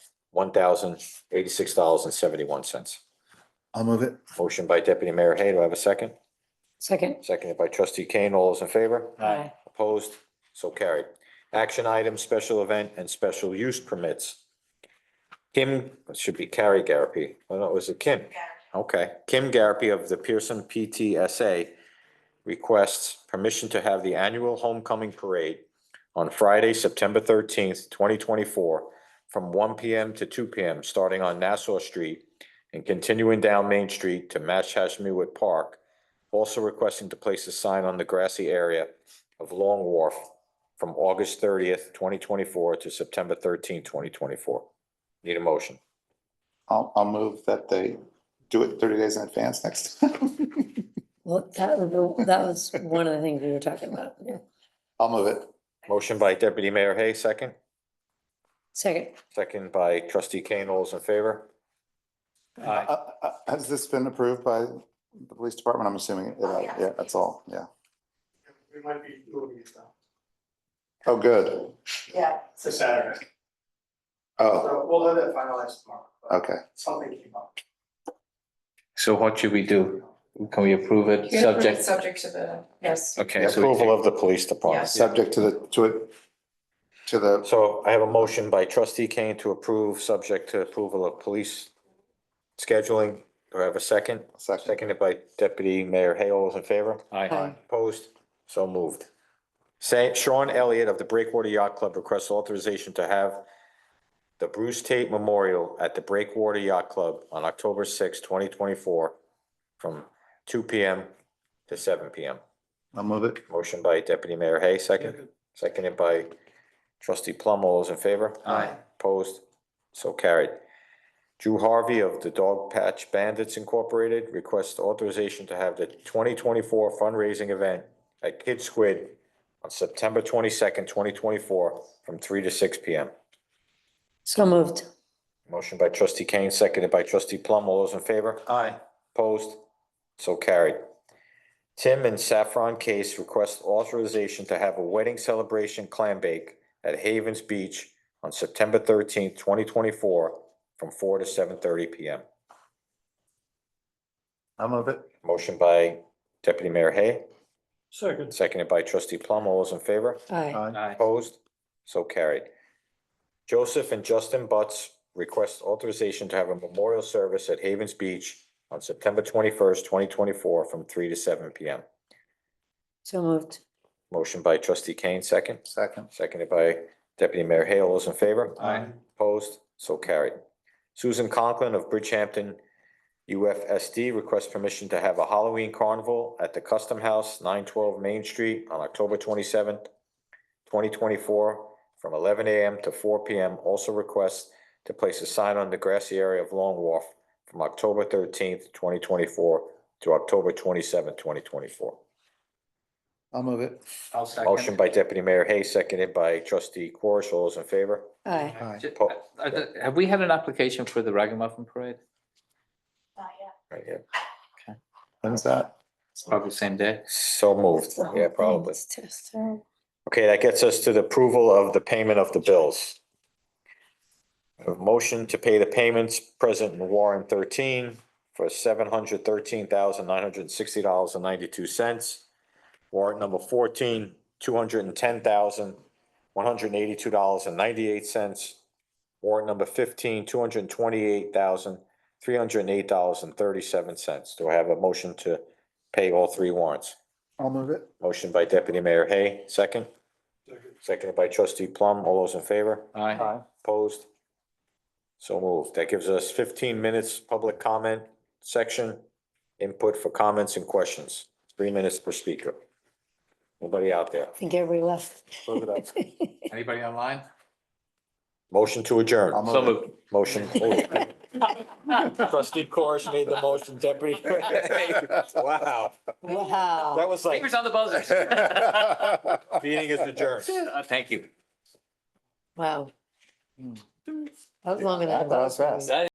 one thousand eighty-six dollars and seventy-one cents. I'll move it. Motion by Deputy Mayor Hay, do I have a second? Second. Seconded by Trustee Kane, all those in favor? Opposed? So carried. Action items, special event and special use permits. Kim, it should be Carrie Garapi. Oh, no, was it Kim? Okay. Kim Garapi of the Pearson PTSA requests permission to have the annual homecoming parade on Friday, September thirteenth, twenty twenty-four, from one P M. to two P M., starting on Nassau Street and continuing down Main Street to Mashhashmewick Park, also requesting to place a sign on the grassy area of Long Wharf from August thirtieth, twenty twenty-four to September thirteenth, twenty twenty-four. Need a motion. I'll, I'll move that they do it thirty days in advance next. time. Well, that was, that was one of the things we were talking about. yeah. I'll move it. Motion by Deputy Mayor Hay, second. Second. Second by Trustee Kane. All those in favor? Uh, uh, Has this been approved by the police department? I'm assuming, it- uh, yeah, that's all, yeah. We might be moving it though. Oh, good. Yeah. It's a Saturday, Oh, so we'll have that finalized tomorrow. but okay. Something came up. So what should we do? Can we approve it, You're gonna approve it subject? Subject to the, yes. Okay. so we Approval of take- the police department. Subject to the, to it, to the, So I have a motion by Trustee Kane to approve, subject to approval of police scheduling. Do I have a second? second, Seconded by Deputy Mayor Hay. All those in favor? Aye. Opposed? So moved. Sa- Sean Elliott of the Breakwater Yacht Club requests authorization to have the Bruce Tate Memorial at the Breakwater Yacht Club on October sixth, twenty twenty-four, from two P M. to seven P M. I'll move it. Motion by Deputy Mayor Hay, second, seconded by trustee Plum. All those in favor? Aye. Opposed? So carried. Drew Harvey of the Dog Patch Bandits Incorporated requests authorization to have the twenty twenty-four fundraising event at Kid Squid on September twenty-second, twenty twenty-four, from three to six P M. So moved. Motion by trustee Kane, seconded by trustee Plum. All those in favor? Aye. Opposed? So carried. Tim and Saffron Case request authorization to have a wedding celebration clam bake at Havens Beach on September thirteenth, twenty twenty-four, from four to seven thirty P M. I'll move it. Motion by Deputy Mayor Hay, Second. seconded by trustee Plum. All those in favor? Aye. Aye. Aye. Opposed? So carried. Joseph and Justin Butts request authorization to have a memorial service at Havens Beach on September twenty-first, twenty twenty-four, from three to seven P M. So moved. Motion by trustee Kane, second. second. Seconded by deputy mayor Hale. All those in favor? Aye. Opposed? So carried. Susan Conklin of Bridgehampton UFSD requests permission to have a Halloween carnival at the Custom House, nine twelve Main Street on October twenty-seventh, twenty twenty-four, from eleven AM to four PM. Also requests to place a sign on the grassy area of Long Wharf from October thirteenth, twenty twenty-four to October twenty-seventh, twenty twenty-four. I'll move it. I'll second. Motion by deputy mayor Hay, seconded by trustee Corish. All those in favor? Aye. Aye. Ju- uh, uh, Have we had an application for the Ragamuffin Parade? Right here. When's that? It's Probably same day. So moved. Yeah, probably. It's just terrible. Okay, that gets us to the approval of the payment of the bills. A motion to pay the payments present in warrant thirteen for seven hundred thirteen thousand nine hundred and sixty dollars and ninety-two cents. Warrant number fourteen, two hundred and ten thousand one hundred and eighty-two dollars and ninety-eight cents. Warrant number fifteen, two hundred and twenty-eight thousand three hundred and eight dollars and thirty-seven cents. Do I have a motion to pay all three warrants? I'll move it. Motion by deputy mayor Hay, second. Seconded by trustee Plum. All those in favor? Aye. Opposed? So moved. That gives us fifteen minutes public comment section. Input for comments and questions. Three minutes per speaker. Nobody out there. I think everybody left. Close it up. Anybody online? Motion to I'll adjourn. move it. Motion. Trustee Corish made the motion, deputy. Wow, Wow. that was like, Fingers on the buzzer. meeting is adjourned. Uh, Thank you. Hmm. Wow. That was longer than I That was thought. fast.